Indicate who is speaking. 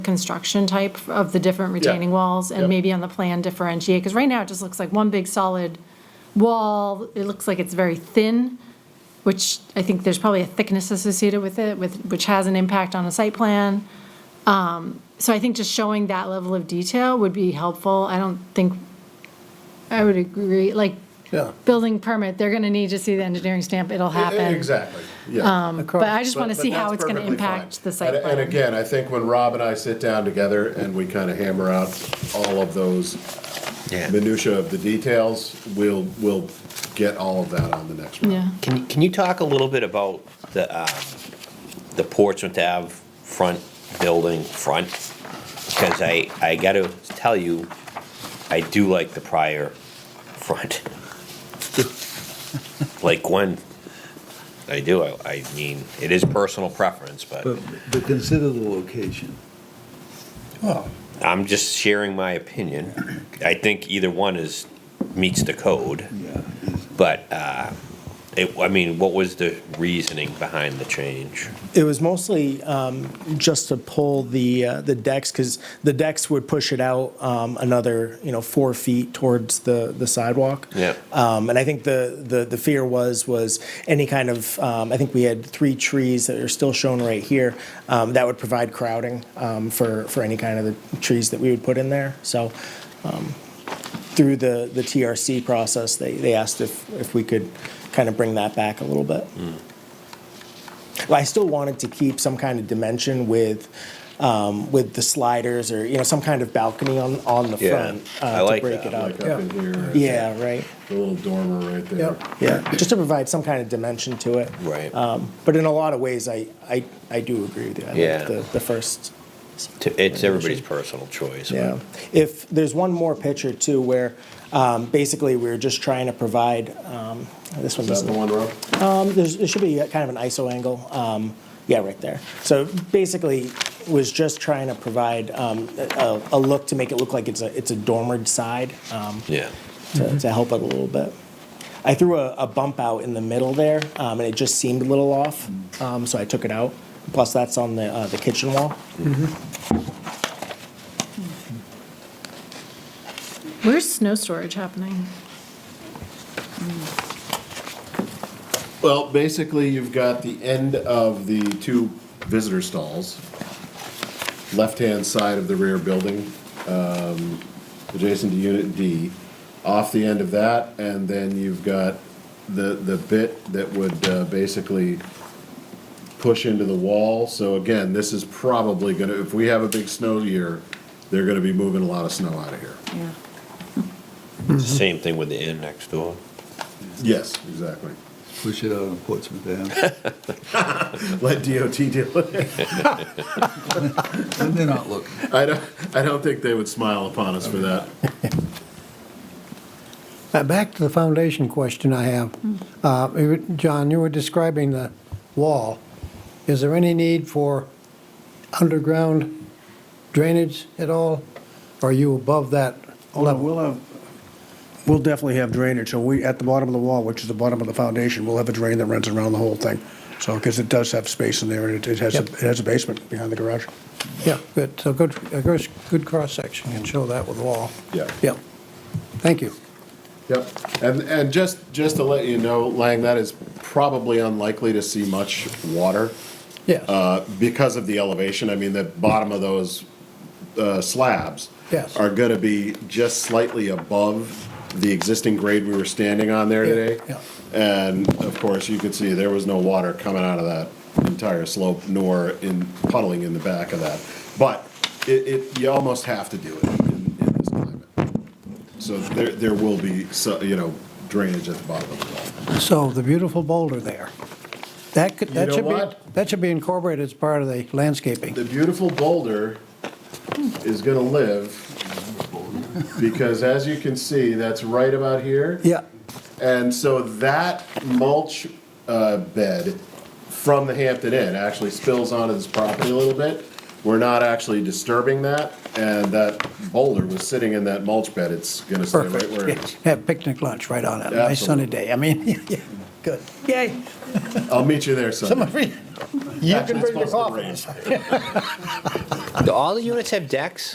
Speaker 1: construction type of the different retaining walls
Speaker 2: yeah.
Speaker 1: and maybe on the plan differentiate, because right now it just looks like one big solid wall. It looks like it's very thin, which I think there's probably a thickness associated with it, with, which has an impact on a site plan. Um, So I think just showing that level of detail would be helpful. I don't think, I would agree, like,
Speaker 2: Yeah. E-,
Speaker 1: building permit, they're going to need to see the engineering stamp, it'll happen. Um,
Speaker 2: Exactly, yeah.
Speaker 1: But I just want to
Speaker 2: But-
Speaker 1: see
Speaker 2: but
Speaker 1: how
Speaker 2: that's
Speaker 1: it's going to
Speaker 2: perfectly fine.
Speaker 1: impact the site
Speaker 2: And-
Speaker 1: plan.
Speaker 2: And again, I think when Rob and I sit down together and we kind of hammer out all of those minutia of the details, we'll, we'll get all of that on the next
Speaker 1: Yeah.
Speaker 2: one.
Speaker 3: Can, can you talk a little bit about the, uh, the Portsmouth Ave front building front? Because I, I gotta tell you, I do like the prior front. Like Gwen, I do, I, I mean, it is personal preference, but
Speaker 4: But, but consider the location.
Speaker 3: I'm just sharing my opinion. I think either one is, meets the code,
Speaker 4: Yeah.
Speaker 3: but, uh, it, I mean, what was the reasoning behind the change?
Speaker 5: It was mostly um, just to pull the, uh, the decks, because the decks would push it out um, another, you know, four feet towards the, the sidewalk.
Speaker 3: Yeah.
Speaker 5: Um, And I think the, the, the fear was, was any kind of, um, I think we had three trees that are still shown right here, um, that would provide crowding um, for, for any kind of the trees that we would put in there. So um, through the, the TRC process, they, they asked if, if we could kind of bring that back a little bit.
Speaker 3: Hmm.
Speaker 5: Well, I still wanted to keep some kind of dimension with, um, with the sliders or, you know, some kind of balcony on, on the
Speaker 3: Yeah,
Speaker 5: front. uh,
Speaker 3: I
Speaker 5: to
Speaker 3: like
Speaker 5: break
Speaker 3: that.
Speaker 5: it
Speaker 2: Like
Speaker 5: up.
Speaker 2: up in here.
Speaker 5: Yeah, right,
Speaker 2: The little dormer right there.
Speaker 5: yeah, just to provide some kind of dimension to it.
Speaker 3: Right.
Speaker 5: Um, But in a lot of ways, I, I, I do agree with you. I like
Speaker 3: Yeah.
Speaker 5: The, the first
Speaker 3: To- It's everybody's personal choice. but-
Speaker 5: Yeah. If, there's one more picture too, where um, basically we're just trying to provide, um, this one
Speaker 2: Is
Speaker 5: doesn't.
Speaker 2: that the one, Rob?
Speaker 5: Um, there's, there should be a kind of an ISO angle. Um, yeah, right there. So basically, was just trying to provide um, a, a look to make it look like it's a it's a dormered side um,
Speaker 3: Yeah.
Speaker 5: to, to help it a little bit. I threw a, a bump out in the middle there, um, and it just seemed a little off, um, so I took it out. Plus, that's on the uh, the kitchen wall.
Speaker 1: Where's snow storage happening?
Speaker 2: Well, basically, you've got the end of the two visitor stalls, left-hand side of the rear building, um, adjacent to Unit D, off the end of that, and then you've got the, the bit that would uh, basically push into the wall. So again, this is probably gonna, if we have a big snow year, they're gonna be moving a lot of snow out of here.
Speaker 1: Yeah.
Speaker 3: It's the Same thing with the inn next door.
Speaker 2: Yes, exactly.
Speaker 4: Push it out on Portsmouth Ave.
Speaker 2: Let DOT deal with it.
Speaker 4: And they're not looking.
Speaker 2: I don't, I don't think they would smile upon us for that.
Speaker 6: Now, back to the foundation question I have. Uh, you were- John, you were describing the wall. Is there any need for underground drainage at all? Or are you above that
Speaker 7: Well,
Speaker 6: level?
Speaker 7: we'll have, we'll definitely have drainage, so we, at the bottom of the wall, which is the bottom of the foundation, we'll have a drain that runs around the whole thing. So, because it does have space in there, and it- it has, a-
Speaker 6: Yep.
Speaker 7: it has a basement behind the garage.
Speaker 6: Yeah, good, so good, a good- good cross-section, can show that with the wall.
Speaker 2: Yeah.
Speaker 6: Yep, thank you.
Speaker 2: Yep, and, and just, just to let you know, Lang, that is probably unlikely to see much water
Speaker 6: Yes,
Speaker 2: uh, because of the elevation. I mean, the bottom of those uh, slabs
Speaker 6: Yes.
Speaker 2: are going to be just slightly above the existing grade we were standing on there
Speaker 6: Yeah,
Speaker 2: today.
Speaker 6: yeah.
Speaker 2: And of course, you could see there was no water coming out of that entire slope, nor in puddling in the back of that. But it, it, you almost have to do it in, in this climate. So there, there will be, so- you know, drainage at the bottom of the wall.
Speaker 6: so the beautiful boulder there, that could, that
Speaker 2: know
Speaker 6: should be,
Speaker 2: what?
Speaker 6: that should be incorporated as part of the landscaping.
Speaker 2: the beautiful boulder is gonna live, because as you can see, that's right about here.
Speaker 6: Yeah,
Speaker 2: And so that mulch uh, bed from the Hampton Inn actually spills onto this property a little bit. We're not actually disturbing that, and that boulder was sitting in that mulch bed, it's gonna stay right
Speaker 6: perfect.
Speaker 2: where it is.
Speaker 6: Yeah, Have picnic lunch right on it, nice sunny
Speaker 2: Absolutely.
Speaker 6: day, I mean, yeah, good, yay.
Speaker 2: I'll meet you there, son.
Speaker 6: Somebody- You can bring the coffee.
Speaker 3: Do all the units have decks?